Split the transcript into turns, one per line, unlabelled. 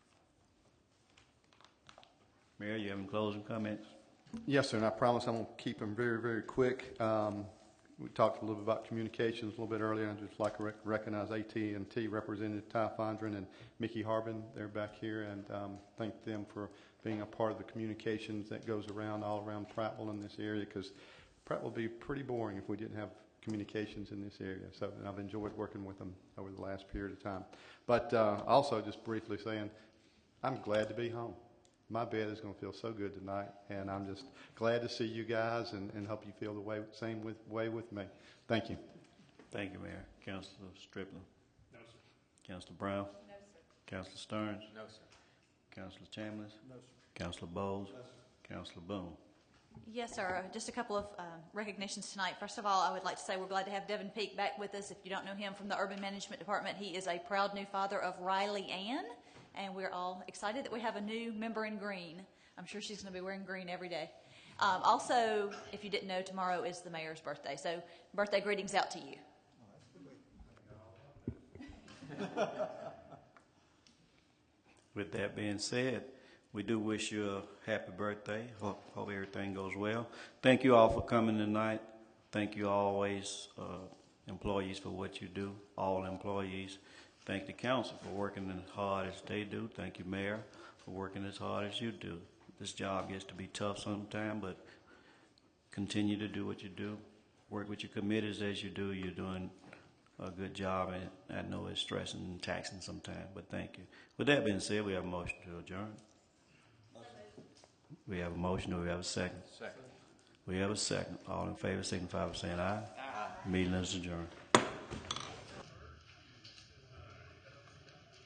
Mayor, you have any closing comments?
Yes, sir, and I promise I'm going to keep them very, very quick. Um, We talked a little bit about communications a little bit earlier, and I'd just like to rec- recognize at and t Representative Ty Fondren and Mickey Harbin, they're back here, and um, thank them for being a part of the communications that goes around, all around Prattville in this area, because Prattville would be pretty boring if we didn't have communications in this area. So, and I've enjoyed working with them over the last period of time. But uh, also, just briefly saying, I'm glad to be home. My bed is going to feel so good tonight, and I'm just glad to see you guys and, and hope you feel the way, same with, way with me. Thank you.
Thank you, Mayor. Councilor Striplin? No, sir. Councilor Brown? No, sir. Councilor Stearns? No, sir. Councilor Chambliss? No, sir. Councilor Bowles? No, sir. Councilor Boone?
Yes, sir. Just a couple of um, recognitions tonight. First of all, I would like to say we're glad to have Devin Peak back with us. If you don't know him from the Urban Management Department, he is a proud new father of Riley Ann, and we're all excited that we have a new member in green. I'm sure she's going to be wearing green every day. Um, Also, if you didn't know, tomorrow is the mayor's birthday, so birthday greetings out to you.
With that being said, we do wish you a happy birthday. Hope, hope everything goes well. Thank you all for coming tonight. Thank you always, uh, employees for what you do, all employees. Thank the council for working as hard as they do. Thank you, mayor, for working as hard as you do. This job gets to be tough sometime, but continue to do what you do. Work with your committees as you do. You're doing a good job, and I know it's stressing and taxing sometimes, but thank you. With that being said, we have a motion to adjourn. We have a motion, do we have a second? Second. We have a second. All in favor, signify by saying aye. Aye. Meeting is adjourned.